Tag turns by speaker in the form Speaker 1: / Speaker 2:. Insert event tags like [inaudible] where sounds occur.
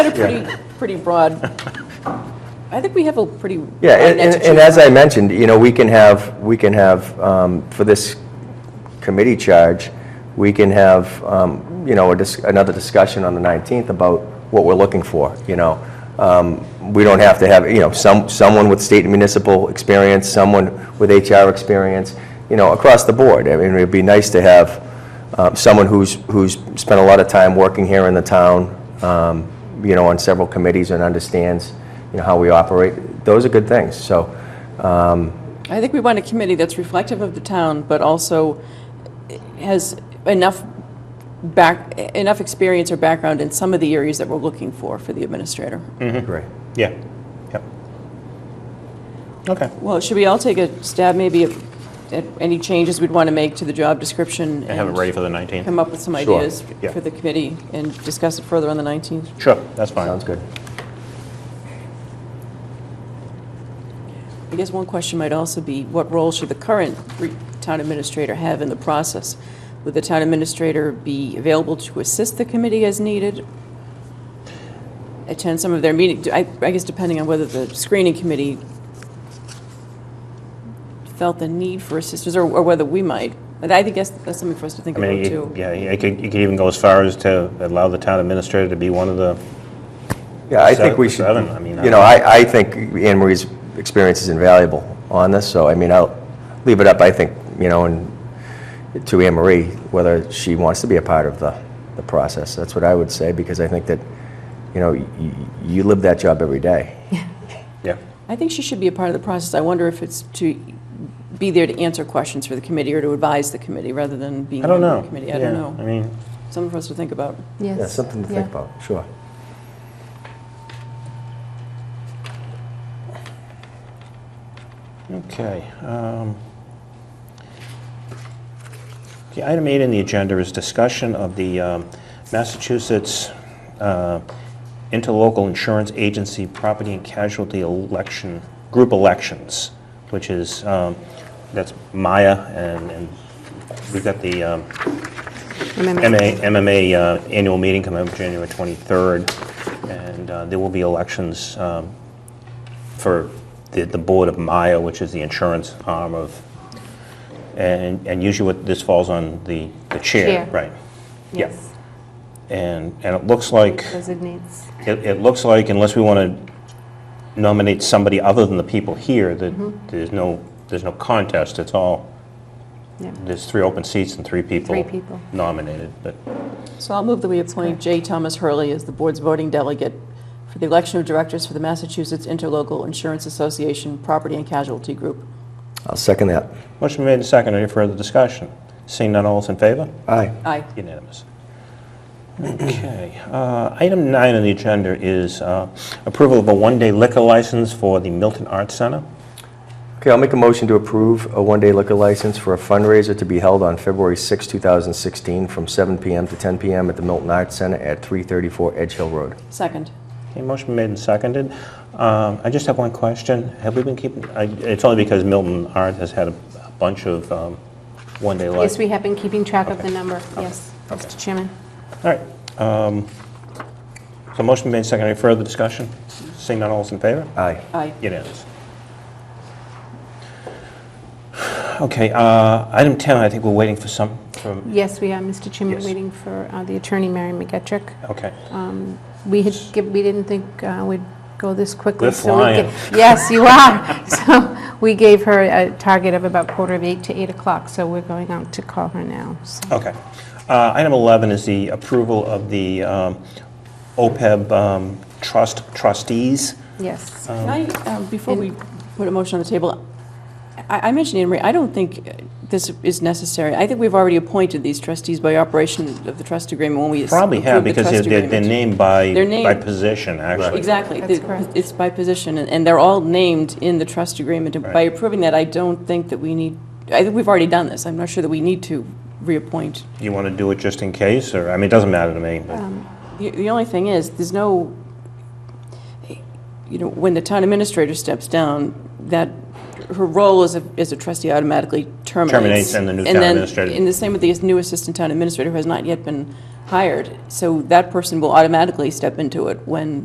Speaker 1: a pretty, pretty broad, I think we have a pretty.
Speaker 2: Yeah,
Speaker 1: broad net
Speaker 2: and,
Speaker 1: to
Speaker 2: and- and
Speaker 1: choose
Speaker 2: as
Speaker 1: from.
Speaker 2: I mentioned, you know, we can have, we can have, um, for this committee charge, we can have, um, you know, a dis- another discussion on the 19th about what we're looking for, you know. Um, We don't have to have, you know, some, someone with state and municipal experience, someone with HR experience, you know, across the board. I mean, it'd be nice to have uh, someone who's, who's spent a lot of time working here in the town, um, you know, on several committees and understands, you know, how we operate. Those are good things, so.
Speaker 1: I think we want a committee that's reflective of the town, but also has enough back, enough experience or background in some of the areas that we're looking for, for the administrator.
Speaker 3: Mm.
Speaker 2: Great.
Speaker 3: Yeah, yep. Okay.
Speaker 1: Well, should we all take a stab maybe at at any changes we'd want to make to the job description?
Speaker 3: I have it
Speaker 1: and
Speaker 3: ready for the 19th.
Speaker 1: Come up with some
Speaker 2: Sure,
Speaker 1: ideas
Speaker 3: yeah.
Speaker 1: for the committee and discuss it further on the 19th?
Speaker 3: Sure, that's fine.
Speaker 2: Sounds good.
Speaker 1: I guess one question might also be, what role should the current re- town administrator have in the process? Would the town administrator be available to assist the committee as needed? Attend some of their meetings, I I guess depending on whether the screening committee felt the need for assistance, or or whether we might. But I think that's that's something for us to think
Speaker 3: I mean,
Speaker 1: about,
Speaker 3: you-
Speaker 1: too.
Speaker 3: yeah, you could, you could even go as far as to allow the town administrator to be one of the,
Speaker 2: Yeah, I think we
Speaker 3: Se-
Speaker 2: should,
Speaker 3: seven, I mean, I-
Speaker 2: you know, I, I think Anne Marie's experience is invaluable on this, so, I mean, I'll leave it up, I think, you know, and to Anne Marie, whether she wants to be a part of the, the process. That's what I would say, because I think that, you know, y- y- you live that job every day.
Speaker 3: yeah.
Speaker 1: I think she should be a part of the process. I wonder if it's to be there to answer questions for the committee or to advise the committee, rather than being
Speaker 3: I don't
Speaker 1: on
Speaker 3: know.
Speaker 1: the committee. I don't
Speaker 3: Yeah,
Speaker 1: know.
Speaker 3: I mean,
Speaker 1: Something for us to think about.
Speaker 4: Yes.
Speaker 2: Yeah, something to think
Speaker 4: yeah.
Speaker 2: about, sure.
Speaker 3: okay. um, The item eight in the agenda is discussion of the um, Massachusetts uh, Interlocal Insurance Agency Property and Casualty Election, Group Elections, which is, um, that's Maya, and and we've got the um,
Speaker 4: Remember.
Speaker 3: MA MMA uh, annual meeting coming up January 23rd, and uh, there will be elections um, for the the Board of Maya, which is the insurance arm of, and and usually what this falls on the the chair,
Speaker 4: Chair.
Speaker 3: right? Yep.
Speaker 4: Yes.
Speaker 3: And and it looks like,
Speaker 4: Designates.
Speaker 3: it it looks like unless we want to nominate somebody other than the people here,
Speaker 4: Mm-hmm.
Speaker 3: that there's no, there's no contest, it's all,
Speaker 4: Yeah.
Speaker 3: there's three open seats and three people
Speaker 4: Three people.
Speaker 3: nominated, but...
Speaker 1: So I'll move that we appoint J. Thomas Hurley as the board's voting delegate for the election of directors for the Massachusetts Interlocal Insurance Association Property and Casualty Group.
Speaker 2: I'll second that.
Speaker 3: Motion made and seconded. Any further discussion? Seeing none, all is in favor?
Speaker 2: Aye.
Speaker 1: Aye.
Speaker 3: Unanimous. Okay. uh, Item nine on the agenda is uh, approval of a one-day liquor license for the Milton Arts Center.
Speaker 2: Okay, I'll make a motion to approve a one-day liquor license for a fundraiser to be held on February 6, 2016, from 7 PM to 10 PM at the Milton Arts Center at 334 Edge Hill Road.
Speaker 1: Second.
Speaker 3: Okay, motion made and seconded. Um, I just have one question. Have we been keeping, I- it's only because Milton Arts has had a a bunch of um, one-day
Speaker 4: Yes,
Speaker 3: licenses.
Speaker 4: we have been keeping track of the number. Yes, Mr. Chairman.
Speaker 3: All right. um, So motion made and seconded. Any further discussion? Seeing none, all is in favor?
Speaker 2: Aye.
Speaker 1: Aye.
Speaker 3: It is. Okay, uh, item 10, I think we're waiting for some, from,
Speaker 4: Yes, we are, Mr. Chairman,
Speaker 3: Yes.
Speaker 4: waiting for uh, the attorney, Mary McGetrick.
Speaker 3: okay.
Speaker 1: Uh.
Speaker 4: We had, gi- we didn't think uh, we'd go this quickly.
Speaker 3: We're
Speaker 4: so we ga-
Speaker 3: flying.
Speaker 4: Yes, you are. [laughs] So we gave her a target of about quarter of eight to eight o'clock, so we're going out to call her now. So
Speaker 3: Okay. Uh, Item 11 is the approval of the um, OPEB um, trust trustees.
Speaker 2: Uh,
Speaker 4: Yes.
Speaker 1: Can I, um, before we put a motion on the table, I I mentioned, Anne Marie, I don't think uh, this is necessary. I think we've already appointed these trustees by operation of the trust agreement when we
Speaker 3: Probably have,
Speaker 1: approved the
Speaker 3: because they're-
Speaker 1: trust
Speaker 3: they're they're
Speaker 1: agreement.
Speaker 3: named by,
Speaker 1: They're named.
Speaker 3: by position, actually.
Speaker 1: Exactly.
Speaker 4: That's
Speaker 1: The-
Speaker 4: correct.
Speaker 1: It's by position, and- and they're all named in the trust agreement. And By
Speaker 3: Right.
Speaker 1: approving that, I don't think that we need, I think we've already done this. I'm not sure that we need to reappoint.
Speaker 3: You want to do it just in case, or, I mean, it doesn't matter to me, but,
Speaker 1: The the only thing is, there's no, you know, when the town administrator steps down, that, her role as a, as a trustee automatically terminates.
Speaker 3: Terminates and the new town
Speaker 1: then-
Speaker 3: administrator-
Speaker 1: And the same with the new assistant town administrator, who has not yet been hired. So that person will automatically step into it when